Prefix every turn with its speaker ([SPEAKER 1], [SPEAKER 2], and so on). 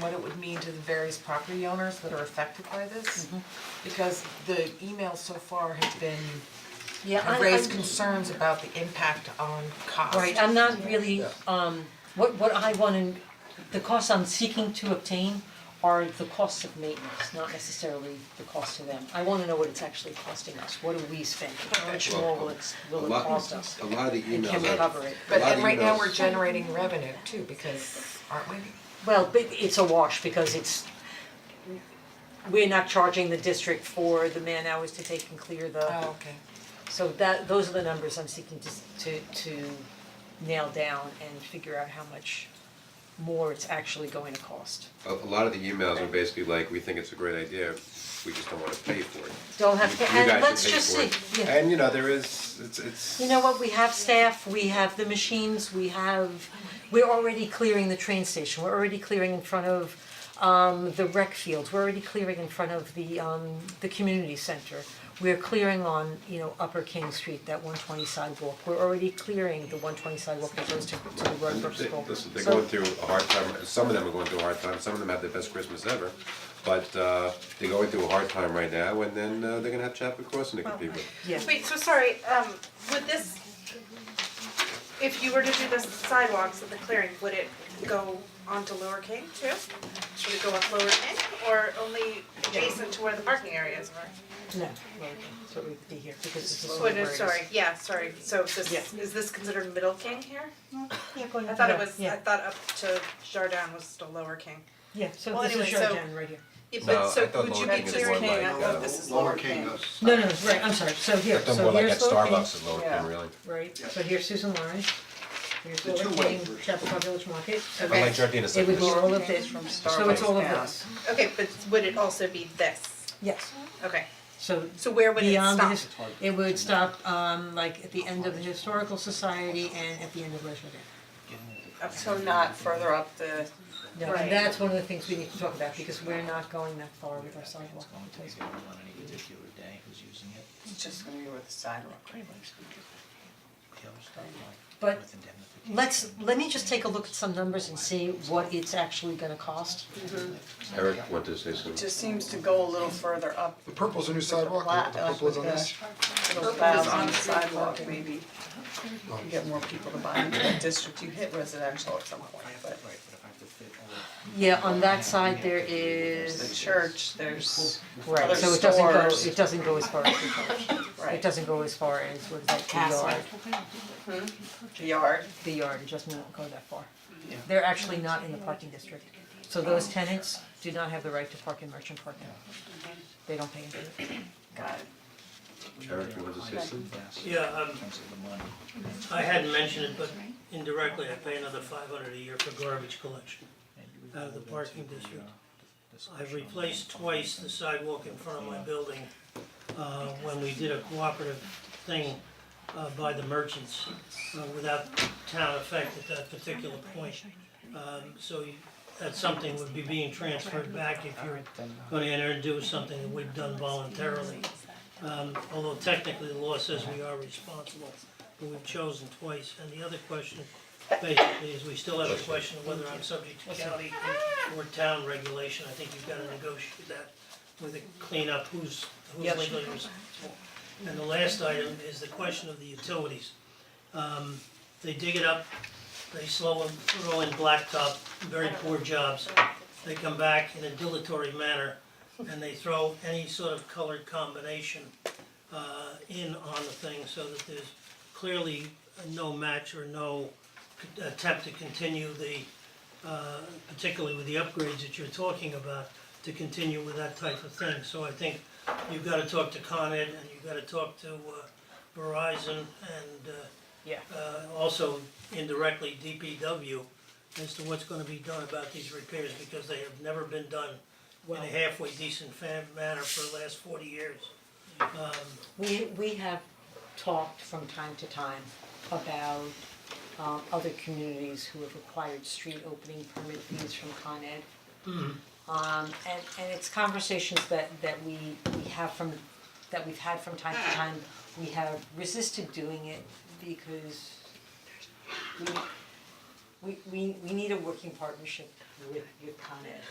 [SPEAKER 1] what it would mean to the various property owners that are affected by this.
[SPEAKER 2] Mm-hmm.
[SPEAKER 1] Because the emails so far have been,
[SPEAKER 3] Yeah,
[SPEAKER 1] have
[SPEAKER 3] I
[SPEAKER 1] raised
[SPEAKER 3] I'm
[SPEAKER 1] concerns about the impact on cost.
[SPEAKER 3] right, I'm not really um what what I wanna, the costs I'm seeking to obtain are the costs of maintenance, not necessarily the cost to them. I wanna know what it's actually costing us, what do we spend, how much more will it's will
[SPEAKER 4] A
[SPEAKER 3] it
[SPEAKER 4] lot-
[SPEAKER 3] cost us?
[SPEAKER 4] A lot of the
[SPEAKER 3] And
[SPEAKER 4] emails.
[SPEAKER 3] can we
[SPEAKER 4] I-
[SPEAKER 3] cover it?
[SPEAKER 4] a
[SPEAKER 1] But
[SPEAKER 4] lot of
[SPEAKER 1] and right now,
[SPEAKER 4] emails-
[SPEAKER 1] we're generating revenue too, because aren't we?
[SPEAKER 3] Well, but it's a wash because it's, we're not charging the district for the man hours to take and clear the
[SPEAKER 1] Oh, okay.
[SPEAKER 3] So that, those are the numbers I'm seeking to s- to to nail down and figure out how much more it's actually going to cost.
[SPEAKER 4] A, a lot of the emails are basically like, we think it's a great idea, we just don't wanna pay for it.
[SPEAKER 3] Don't have
[SPEAKER 4] You-
[SPEAKER 3] to,
[SPEAKER 4] you
[SPEAKER 3] and
[SPEAKER 4] guys
[SPEAKER 3] let's
[SPEAKER 4] should pay
[SPEAKER 3] just
[SPEAKER 4] for
[SPEAKER 3] see,
[SPEAKER 4] it.
[SPEAKER 3] yeah.
[SPEAKER 4] And you know, there is, it's, it's.
[SPEAKER 3] You know what, we have staff, we have the machines, we have, we're already clearing the train station, we're already clearing in front of um the rec fields, we're already clearing in front of the um the community center. We're clearing on, you know, Upper King Street, that one twenty sidewalk, we're already clearing the one twenty sidewalk that goes to to the
[SPEAKER 4] And
[SPEAKER 3] Rutgers
[SPEAKER 4] they-
[SPEAKER 3] School.
[SPEAKER 4] Listen, they're
[SPEAKER 3] So-
[SPEAKER 4] going through a hard time, some of them are going through a hard time, some of them had their best Christmas ever, but, uh, they're going through a hard time right now, and then, uh, they're gonna have Chapel Crossing to compete with.
[SPEAKER 3] Yeah.
[SPEAKER 5] Wait, so sorry, um, would this, if you were to do the sidewalks and the clearing, would it go onto Lower King too? Should it go up Lower King or only adjacent to where the parking areas are?
[SPEAKER 3] No, well, so we'd be here because this is.
[SPEAKER 5] So it is- sorry, yeah, sorry, so this,
[SPEAKER 3] Yeah.
[SPEAKER 5] is this considered Middle King here? I thought it was, I
[SPEAKER 3] Yeah,
[SPEAKER 5] thought up to Jardin was still Lower King.
[SPEAKER 3] yeah, so
[SPEAKER 5] Well,
[SPEAKER 3] this is
[SPEAKER 5] anyway,
[SPEAKER 3] your
[SPEAKER 5] so-
[SPEAKER 3] down right here.
[SPEAKER 5] Yeah,
[SPEAKER 4] No,
[SPEAKER 5] but
[SPEAKER 4] I
[SPEAKER 5] so
[SPEAKER 4] thought
[SPEAKER 5] would you
[SPEAKER 4] Lower
[SPEAKER 5] be
[SPEAKER 4] King was
[SPEAKER 5] clearing,
[SPEAKER 4] more
[SPEAKER 5] I
[SPEAKER 4] like,
[SPEAKER 5] thought
[SPEAKER 4] uh,
[SPEAKER 5] this is Lower King.
[SPEAKER 3] No, no, right, I'm sorry, so here,
[SPEAKER 4] They're
[SPEAKER 3] so
[SPEAKER 4] more like
[SPEAKER 3] here's
[SPEAKER 4] at
[SPEAKER 3] Lower King,
[SPEAKER 4] Starbucks at Lower King,
[SPEAKER 5] Yeah.
[SPEAKER 4] really.
[SPEAKER 3] right, so here's Susan Lawrence. Here's
[SPEAKER 6] The
[SPEAKER 3] Lower
[SPEAKER 6] two-way
[SPEAKER 3] King,
[SPEAKER 6] version.
[SPEAKER 3] Chappaqua Village Market, so
[SPEAKER 4] But like
[SPEAKER 3] that's-
[SPEAKER 4] Jardina's like
[SPEAKER 3] it would
[SPEAKER 4] this.
[SPEAKER 3] go all of this, so it's all of this,
[SPEAKER 5] Okay, but would it also be this?
[SPEAKER 3] yes,
[SPEAKER 5] Okay,
[SPEAKER 3] so
[SPEAKER 5] so where would it
[SPEAKER 3] beyond the
[SPEAKER 5] stop?
[SPEAKER 3] his- it would stop um like at the end of the historical society and at the end of Leisure Day.
[SPEAKER 5] Okay.
[SPEAKER 2] So not further up the,
[SPEAKER 3] No,
[SPEAKER 5] Right.
[SPEAKER 3] and that's one of the things we need to talk about because we're not going that far with our sidewalk.
[SPEAKER 6] It's going to be available on any particular day who's using it.
[SPEAKER 2] it's just gonna be with the sidewalk.
[SPEAKER 6] He'll start like
[SPEAKER 3] But
[SPEAKER 6] with indemnification.
[SPEAKER 3] Let's, let me just take a look at some numbers and see what it's actually gonna cost.
[SPEAKER 4] Eric wanted to say something.
[SPEAKER 2] It just seems to go a little further up.
[SPEAKER 7] The purple's a new sidewalk,
[SPEAKER 2] Flat,
[SPEAKER 7] the
[SPEAKER 2] like
[SPEAKER 7] purple is
[SPEAKER 5] oh,
[SPEAKER 7] on
[SPEAKER 2] with
[SPEAKER 7] this.
[SPEAKER 2] Little clouds on the sidewalk, maybe. You get more people to buy into that district, you hit residential at some point, but
[SPEAKER 6] Right, but if I have to fit all the-
[SPEAKER 3] Yeah, on that side there
[SPEAKER 2] the
[SPEAKER 3] is,
[SPEAKER 2] church, there's
[SPEAKER 3] right,
[SPEAKER 2] other
[SPEAKER 3] so it doesn't go,
[SPEAKER 2] stores.
[SPEAKER 3] it doesn't go as far as the church. It
[SPEAKER 2] Right.
[SPEAKER 3] doesn't go as far as, what is that, the
[SPEAKER 2] Castle.
[SPEAKER 3] yard,
[SPEAKER 2] the yard.
[SPEAKER 3] the yard, it doesn't go that far. They're actually not in the parking district, so those tenants do not have the right to park in merchant parking. They don't pay into it.
[SPEAKER 2] Got it.
[SPEAKER 4] Eric, you wanted to say something?
[SPEAKER 6] Yes, in
[SPEAKER 8] Yeah, um,
[SPEAKER 6] terms of the money.
[SPEAKER 8] I hadn't mentioned it, but indirectly, I pay another five hundred a year for garbage collection.
[SPEAKER 6] And
[SPEAKER 8] Out of the
[SPEAKER 6] we've
[SPEAKER 8] parking
[SPEAKER 6] got into the,
[SPEAKER 8] district.
[SPEAKER 6] uh, discussion
[SPEAKER 8] I've
[SPEAKER 6] on
[SPEAKER 8] replaced
[SPEAKER 6] that.
[SPEAKER 8] twice the sidewalk in front of my building, uh, when we did a cooperative thing, uh, by the merchants, uh, without town effect at that particular point. Um, so you- that's something would be being transferred back if you're gonna enter and do something that we've done voluntarily. Um, although technically the law says we are responsible, but we've chosen twice. And the other question basically is we still have a question of whether I'm subject to county or town regulation. I think you've gotta negotiate that with a cleanup, who's, who's
[SPEAKER 3] Yes.
[SPEAKER 8] legally responsible. And the last item is the question of the utilities. Um, they dig it up, they slow and throw in blacktop, very poor jobs. They come back in a dilatory manner and they throw any sort of colored combination uh, in on the thing so that there's clearly no match or no c- attempt to continue the, uh, particularly with the upgrades that you're talking about, to continue with that type of thing. So I think you've gotta talk to Con Ed and you've gotta talk to uh, Verizon and uh,
[SPEAKER 3] Yeah.
[SPEAKER 8] uh, also indirectly DPW as to what's gonna be done about these repairs, because they have never been done in a halfway decent fa- manner for the last forty years.
[SPEAKER 3] We we have talked from time to time about um other communities who have required street opening permit fees from Con Ed. Um and and it's conversations that that we we have from, that we've had from time to time, we have resisted doing it because we we we we need a working partnership with with Con Ed.